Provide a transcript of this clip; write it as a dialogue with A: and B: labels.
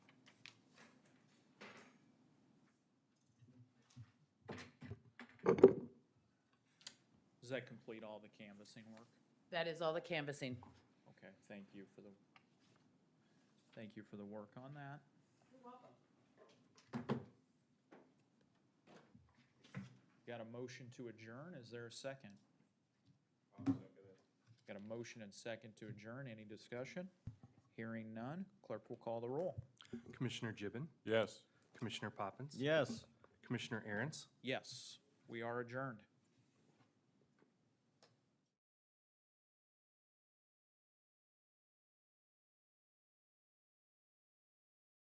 A: Does that complete all the canvassing work?
B: That is all the canvassing.
A: Okay, thank you for the, thank you for the work on that. You're welcome. Got a motion to adjourn, is there a second? Got a motion and second to adjourn, any discussion? Hearing none, clerk will call the roll.
C: Commissioner Gibbon,
D: Yes.
C: Commissioner Poppins.
D: Yes.
C: Commissioner Aaron's,
A: Yes, we are adjourned.